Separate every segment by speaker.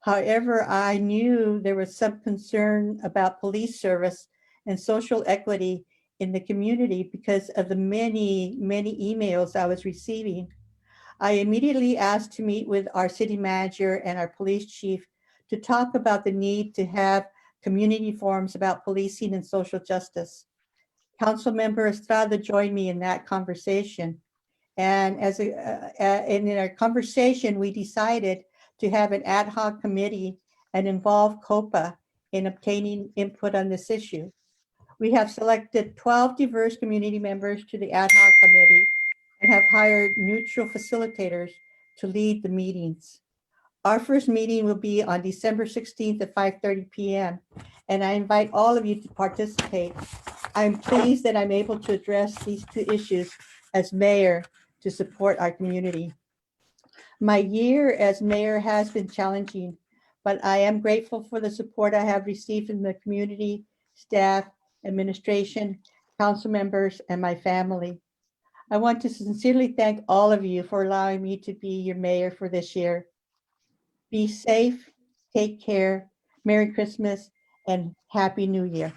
Speaker 1: However, I knew there was some concern about police service and social equity in the community because of the many, many emails I was receiving. I immediately asked to meet with our city manager and our police chief to talk about the need to have community forums about policing and social justice. Councilmember Estrada joined me in that conversation. And as, a- uh, uh, and in our conversation, we decided to have an ad hoc committee and involve COPA in obtaining input on this issue. We have selected 12 diverse community members to the ad hoc committee and have hired neutral facilitators to lead the meetings. Our first meeting will be on December 16th at 5:30 PM, and I invite all of you to participate. I'm pleased that I'm able to address these two issues as mayor to support our community. My year as mayor has been challenging, but I am grateful for the support I have received from the community, staff, administration, council members, and my family. I want to sincerely thank all of you for allowing me to be your mayor for this year. Be safe, take care, Merry Christmas, and Happy New Year.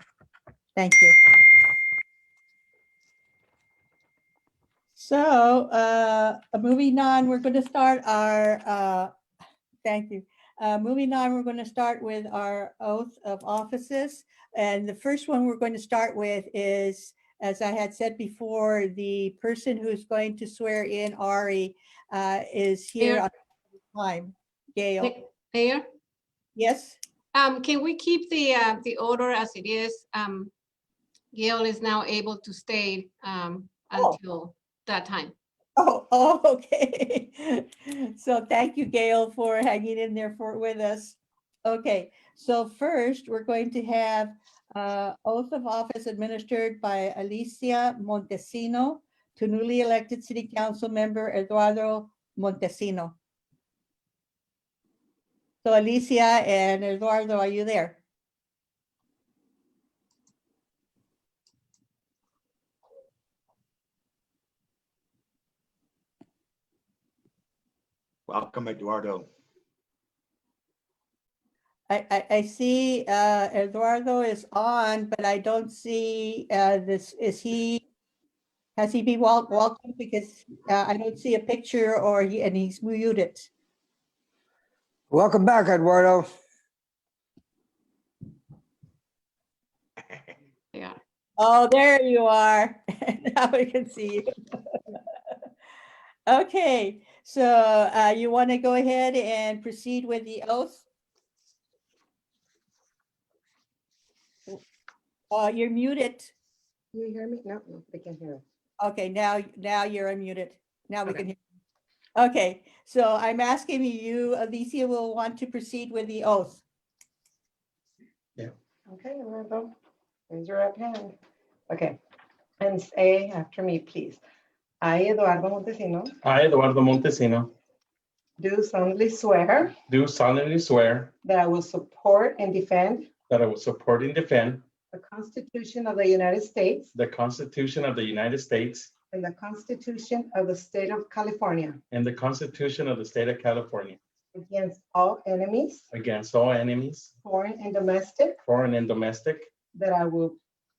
Speaker 1: Thank you. So, uh, moving on, we're going to start our, uh, thank you. Uh, moving on, we're going to start with our oath of offices. And the first one we're going to start with is, as I had said before, the person who's going to swear in Ari, uh, is here
Speaker 2: Here.
Speaker 1: on time. Gail,
Speaker 2: Ma- Mayor,
Speaker 1: yes?
Speaker 2: um, can we keep the, uh, the order as it is? Um, Gail is now able to stay, um,
Speaker 1: Oh.
Speaker 2: until that time.
Speaker 1: Oh, oh, okay. So thank you, Gail, for hanging in there for, with us. Okay, so first, we're going to have uh, oath of office administered by Alicia Montesino to newly elected city council member Eduardo Montesino. So Alicia and Eduardo, are you there?
Speaker 3: Welcome, Eduardo.
Speaker 1: I, I, I see uh, Eduardo is on, but I don't see uh, this, is he? Has he been wel- welcome? Because uh, I don't see a picture or he, and he's muted.
Speaker 4: Welcome back, Eduardo.
Speaker 2: Yeah,
Speaker 1: Oh, there you are. Now we can see you. Okay, so uh, you want to go ahead and proceed with the oath? Uh, You're muted.
Speaker 5: You hear me? No, no, they can't hear us.
Speaker 1: Okay, now, now you're unmuted. Now we
Speaker 5: Okay.
Speaker 1: can hear. you. Okay, so I'm asking you, Alicia will want to proceed with the oath.
Speaker 5: Okay, Lorenzo, raise your right hand. Okay, and say after me, please. I, Eduardo Montesino,
Speaker 6: I, Eduardo Montesino,
Speaker 5: do solemnly swear
Speaker 6: do solemnly swear
Speaker 5: that I will support and defend
Speaker 6: that I will support and defend
Speaker 5: the Constitution of the United States
Speaker 6: the Constitution of the United States
Speaker 5: and the Constitution of the State of California
Speaker 6: and the Constitution of the State of California
Speaker 5: against all enemies,
Speaker 6: against all enemies,
Speaker 5: foreign and domestic,
Speaker 6: foreign and domestic,
Speaker 5: that I will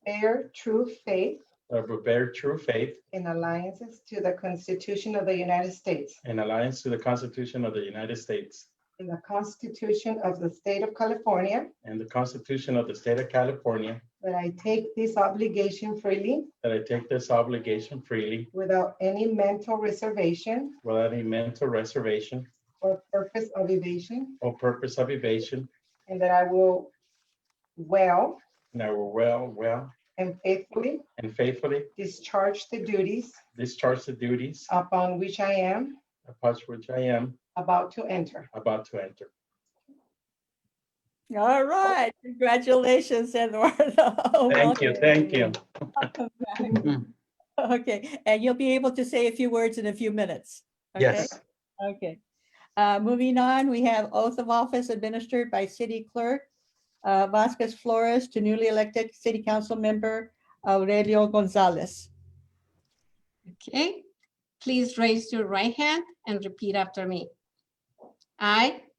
Speaker 5: bear true faith
Speaker 6: that I will bear true faith
Speaker 5: and alliances to the Constitution of the United States
Speaker 6: and allegiance to the Constitution of the United States
Speaker 5: and the Constitution of the State of California
Speaker 6: and the Constitution of the State of California,
Speaker 5: That I take this obligation freely
Speaker 6: that I take this obligation freely
Speaker 5: without any mental reservation
Speaker 6: without any mental reservation
Speaker 5: or purpose of evasion,
Speaker 6: or purpose of evasion,
Speaker 5: and that I will well
Speaker 6: and I will well, well,
Speaker 5: and faithfully
Speaker 6: and faithfully
Speaker 5: discharge the duties
Speaker 6: discharge the duties
Speaker 5: upon which I am
Speaker 6: upon which I am
Speaker 5: about to enter.
Speaker 6: about to enter.
Speaker 1: All right, congratulations, Eduardo.
Speaker 6: Thank you, thank you.
Speaker 1: Welcome back. Okay, and you'll be able to say a few words in a few minutes. okay?
Speaker 6: Yes.
Speaker 1: Okay, Uh, moving on, we have oath of office administered by City Clerk uh, Vasquez Flores to newly elected City Council Member Aurelio Gonzalez.
Speaker 2: okay. Please raise your right hand and repeat after me. I